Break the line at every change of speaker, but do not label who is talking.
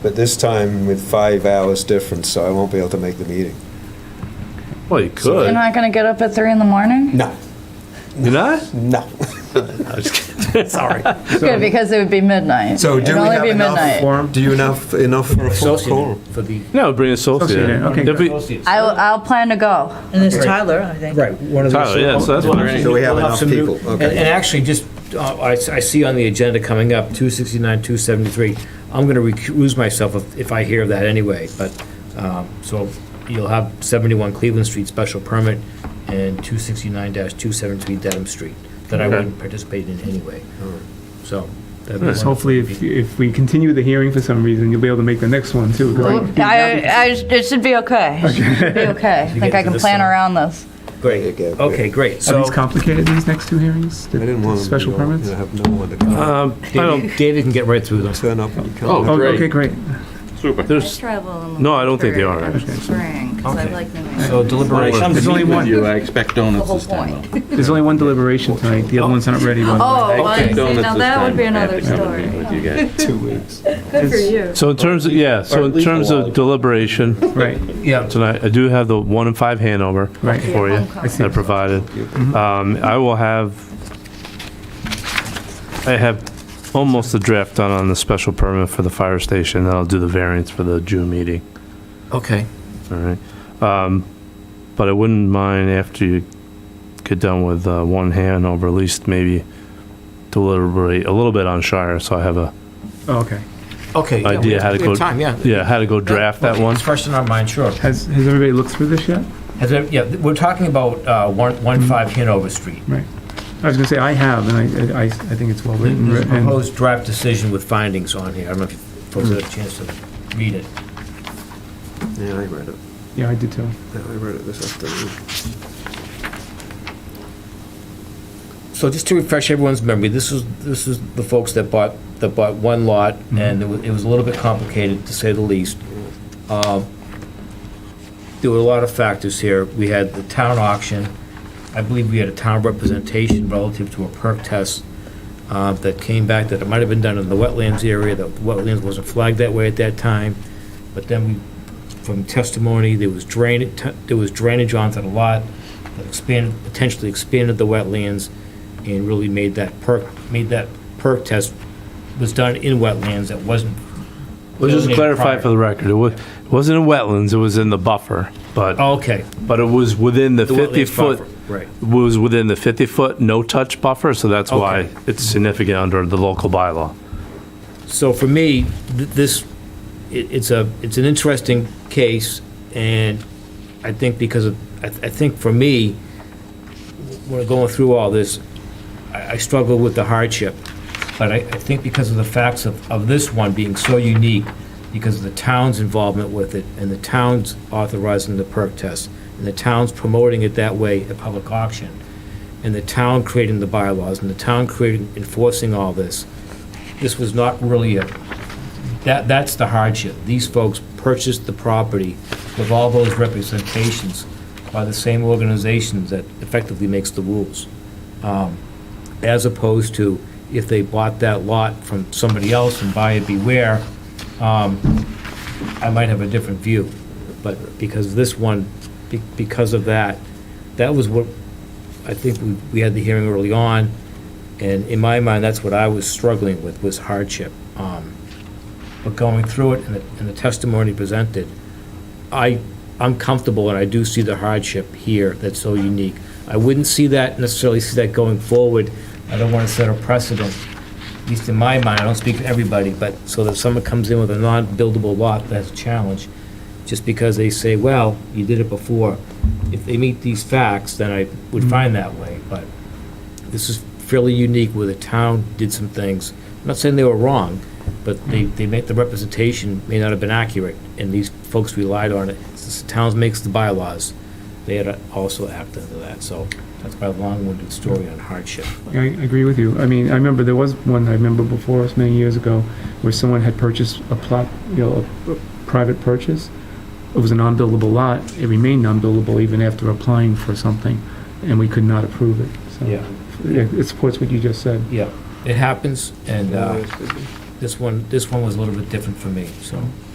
But this time with five hours difference, so I won't be able to make the meeting.
Well, you
You're
could.
not gonna get up at three in the morning?
No,
You're not?
no.
I was kidding.
Sorry.
Good, because it would be midnight.
So do
It'd
we
only
have
be
enough
midnight.
form? Do you enough enough for a full
associate
quorum?
for the.
No, bring an associate.
Associate,
in.
okay.
There'll be-
I, will- I'll plan to go.
And there's Tyler, I think.
Right, one of those.
Tyler, yeah, so that's what I'm saying.
So we have
We'll
enough
some new-
people,
And
okay.
and actually, just, uh, I s- I see on the agenda coming up, 269, 273, I'm going to recuse myself if- if I hear that anyway, but, um, so you'll have 71 Cleveland Street special permit and 269-273 Dedham Street that I
Okay.
wouldn't participate in anyway, so. that'd be
Yes,
one-
hopefully, if, if we continue the hearing for some reason, you'll be able to make the next one too. right?
I, I, it should be okay. It should be okay. I think
get
I
to
can
this
plan
one.
around this.
Great,
Okay, great.
okay, great,
Are
so.
these complicated, these next two hearings? The-
I didn't
the
want to
Special permits?
I have no one to come.
Um, I don't,
David David can get right through them.
Turn up and you come.
Oh,
Oh,
Great.
okay, great.
there's,
travel in the
No, I don't think they are, winter, actually.
Spring, because
I
I
Okay.
like
like
New
So deliberation.
There's only one,
you, I expect donuts
whole
this time.
point.
there's only one deliberation tonight, the other one's not ready, by the way.
Oh, well, you see,
Donuts
now
this
that would
time.
be
I have
another
to come
story.
and meet with you guys.
Two weeks.
Good for you.
so in terms of, yeah, so
Or at
in
least
terms
a
of
log.
deliberation
Right,
Yeah,
tonight, I do have the one in five handover
Right. Mm-hmm.
for you
Homecoming.
that I provided. Um, I will have, I have almost the draft done on the special permit for the fire station, then I'll do the variance for the June meeting.
okay.
All right. Um, But I wouldn't mind after you get done with uh, one hand over, at least maybe deliberate a little bit on Shire, so I have a,
oh, okay.
Okay. yeah, we
Idea
have-
how to
we have
go-
Time, yeah.
yeah, how to go draft that
Okay,
one.
It's fresh in our mind, sure.
Has, has everybody looked through this yet?
Has there- yeah, we're talking about, uh, one, one five Hanover Street.
Right. I was gonna say, I have, and I, I, I think it's well written.
There's a
and-
proposed draft decision with findings on here. I don't know if you folks had a chance to read it.
Yeah, I read it.
Yeah, I did too.
Yeah, I read it this afternoon.
So just to refresh everyone's memory, this is, this is the folks that bought, that bought one lot, and it wa- it was a little bit complicated, to say the least. Um, There were a lot of factors here. We had the town auction. I believe we had a town representation relative to a perk test uh, that came back, that it might have been done in the wetlands area, that wetlands wasn't flagged that way at that time. But then we, from testimony, there was drainage, there was drainage onto the lot that expanded, potentially expanded the wetlands and really made that perk, made that perk test was done in wetlands that wasn't.
Let's just
delineated
clarify
prior.
for the record, it was, it wasn't in wetlands, it was in the buffer, but,
Okay.
but it was within the
Oh. the wetlands
50-foot,
buffer, Right.
was within the 50-foot no-touch buffer, so that's why
Okay.
it's significant under the local bylaw.
So for me, th- this, it, it's a, it's an interesting case, and I think because of, I, I think for me, when going through all this, I, I struggle with the hardship. But I, I think because of the facts of, of this one being so unique, because of the town's involvement with it, and the town's authorizing the perk test, and the town's promoting it that way at public auction, and the town creating the bylaws, and the town creating, enforcing all this, this was not really a, that, that's the hardship. These folks purchased the property with all those representations by the same organization that effectively makes the rules. Um, As opposed to if they bought that lot from somebody else and buyer beware, um, I might have a different view. But because this one, be- because of that, that was what, I think we, we had the hearing early on. And in my mind, that's what I was struggling with, was hardship. Um, But going through it and the- and the testimony presented, I, I'm comfortable and I do see the hardship here that's so unique. I wouldn't see that, necessarily see that going forward. I don't want to set a precedent, at least in my mind, I don't speak for everybody, but so that someone comes in with a non-buildable lot, that's a challenge. Just because they say, well, you did it before. If they meet these facts, then I would find that way, but this is fairly unique where the town did some things. I'm not saying they were wrong, but they, they make, the representation may not have been accurate, and these folks relied on it. Since the town makes the bylaws, they had to also act under that, so that's my long-winded story on hardship.
I agree with you. I mean, I remember there was one, I remember before us many years ago, where someone had purchased a plot, you know, a a private purchase. It was a non-buildable lot. It remained non-buildable even after applying for something, and we could not approve it. So, yeah, It supports what you just said.
Yeah, it happens, and, uh, this one, this one was a little bit different for me, so.